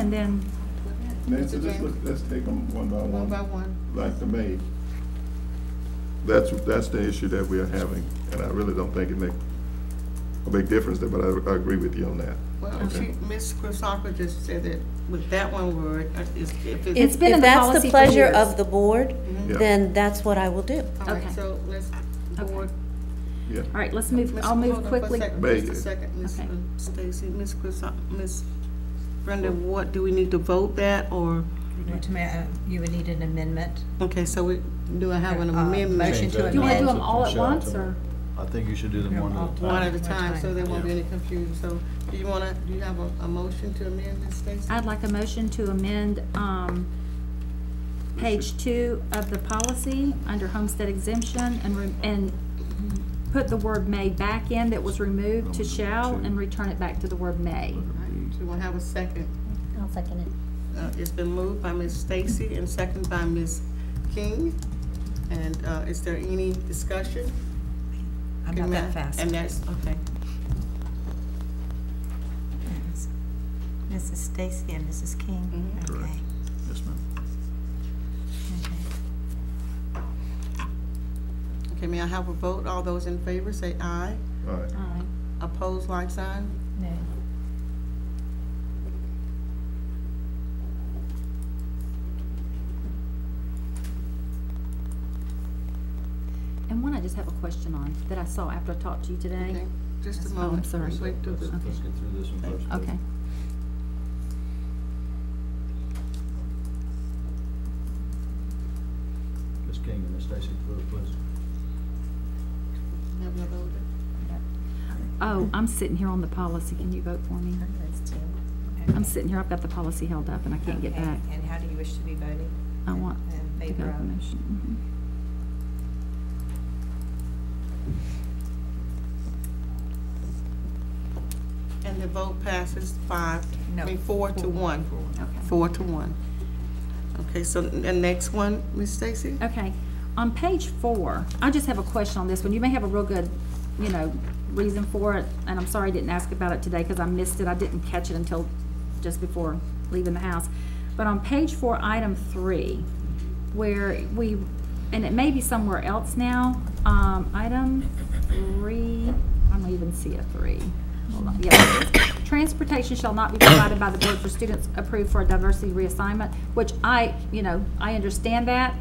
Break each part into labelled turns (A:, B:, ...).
A: And then,
B: Nancy,
C: Mr.
B: just
C: James.
B: look, let's take them one by
C: One by
B: one,
C: one.
B: like the maid. That's, that's the issue that we are having, and I really don't think it make a big difference there, but I, I agree with you on that.
C: Well, she, Ms. Chrisakis just said that with that one word, uh, is- if
A: It's
C: it's.
A: been in
D: If that's
A: policy
D: the
A: for
D: pleasure
A: years.
D: of the board,
B: Yeah.
D: then that's what I will do.
C: All right,
A: okay.
C: so let's, board.
B: Yeah,
A: all right, let's move,
C: Ms.
A: I'll move
C: hold on for a
A: quickly.
C: second,
B: Babe.
C: Just a second, Ms.
A: Okay.
C: Stacy, Ms. Chrisakis, Ms. Brenda, what, do we need to vote that or,
E: Right, to ma- uh, You would need an amendment.
C: okay, so we, do I have an
E: Uh,
C: amendment?
E: motion.
F: Change
E: to amend.
F: that
E: You wanna do
A: them all at
F: from shall
A: once,
F: to-
A: or-
F: I think you should do them
E: No,
F: one at a
E: all-
F: time.
C: One at a time, so there won't be
F: Yeah.
C: any confusion. So do you wanna, do you have a, a motion to amend, Ms. Stacy?
A: I'd like a motion to amend, um, page two of the policy under homestead exemption and, re- and put the word may back in that was removed to shall and return it back to the word may.
C: All right, Do you wanna have a second?
D: I'll second it.
C: Uh, It's been moved by Ms. Stacy and seconded by Ms. King. And uh, is there any discussion?
E: I'm not that fast.
C: And that's, okay.
E: Mrs. Stacy and Mrs. King?
C: Mhm.
E: Okay.
F: Correct. Yes, ma'am.
E: okay.
C: Okay, may I have a vote? All those in favor say aye.
B: all right.
A: All right.
C: Opposed, like sign?
E: No.
A: And one I just have a question on that I saw after I talked to you
C: Okay,
A: today.
C: Just a
A: Oh, I'm
C: moment.
A: sorry.
C: Let's wait till the-
F: Let's let's get through this one first. but-
A: Okay.
F: Ms. King and Ms. Stacy, vote, please.
C: Have another order?
A: Oh, I'm sitting here on the policy. Can you vote for me? I'm sitting here, I've got the policy held up and I can't get
E: Okay,
A: back.
E: And how do you wish to be voting?
A: I want to
E: In
A: go
E: favor
A: to the
E: of?
A: motion.
C: And the vote passes five, I
E: No,
C: mean, four to one.
A: Mhm. Okay.
C: Four to one. Okay, so the next one, Ms. Stacy?
A: Okay, on page four, I just have a question on this one. You may have a real good, you know, reason for it, and I'm sorry I didn't ask about it today because I missed it. I didn't catch it until just before leaving the house. But on page four, item three, where we, and it may be somewhere else now, um, item three, I don't even see a three. Hold on, yeah. Transportation shall not be provided by the board for students approved for a diversity reassignment, which I, you know, I understand that,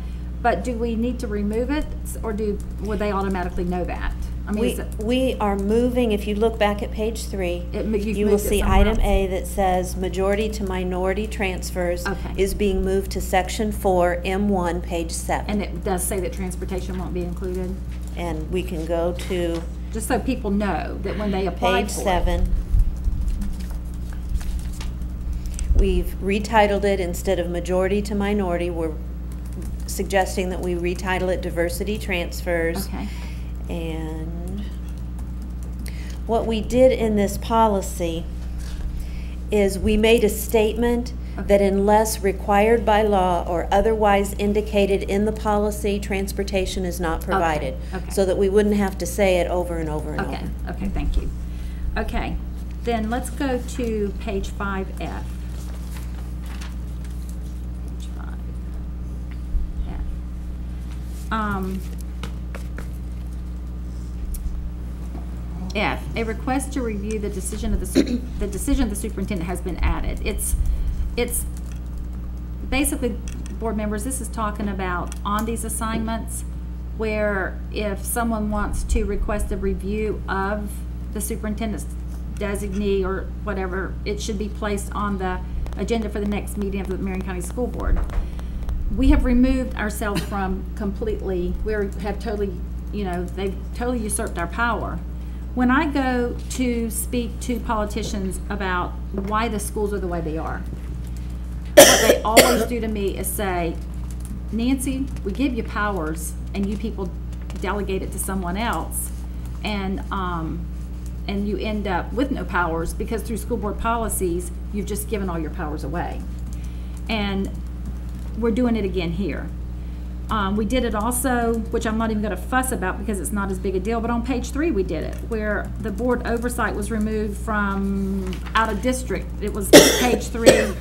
A: but do we need to remove it, or do, would they automatically know that? I mean,
D: We,
A: is it,
D: we are moving, if you look back at page three,
A: It mo- you've
D: you will
A: moved it
D: see
A: somewhere
D: item
A: else.
D: A that says majority to minority transfers
A: Okay.
D: is being moved to section four, M one, page
A: and
D: seven.
A: it does say that transportation won't be included?
D: And we can go to
A: Just so people know that when they apply
D: page
A: for it.
D: seven. We've retitled it, instead of majority to minority, we're suggesting that we retitle it diversity transfers.
A: Okay,
D: And what we did in this policy is we made a statement that
A: Okay.
D: unless required by law or otherwise indicated in the policy, transportation is not provided.
A: okay.
D: So that we wouldn't have to say it over and over and over.
A: okay, okay, thank you. Okay, then let's go to page five F. Page five. F. Um, F, a request to review the decision of the, su- the decision of the superintendent has been added. It's, it's basically, board members, this is talking about on these assignments where if someone wants to request a review of the superintendent's designee or whatever, it should be placed on the agenda for the next meeting of the Marion County School Board. We have removed ourselves from completely, we are- have totally, you know, they've totally usurped our power. When I go to speak to politicians about why the schools are the way they are, what they always do to me is say, Nancy, we give you powers and you people delegate it to someone else. And, um, and you end up with no powers because through school board policies, you've just given all your powers away. And we're doing it again here. Um, we did it also, which I'm not even gonna fuss about because it's not as big a deal, but on page three, we did it, where the board oversight was removed from out of district. It was page three,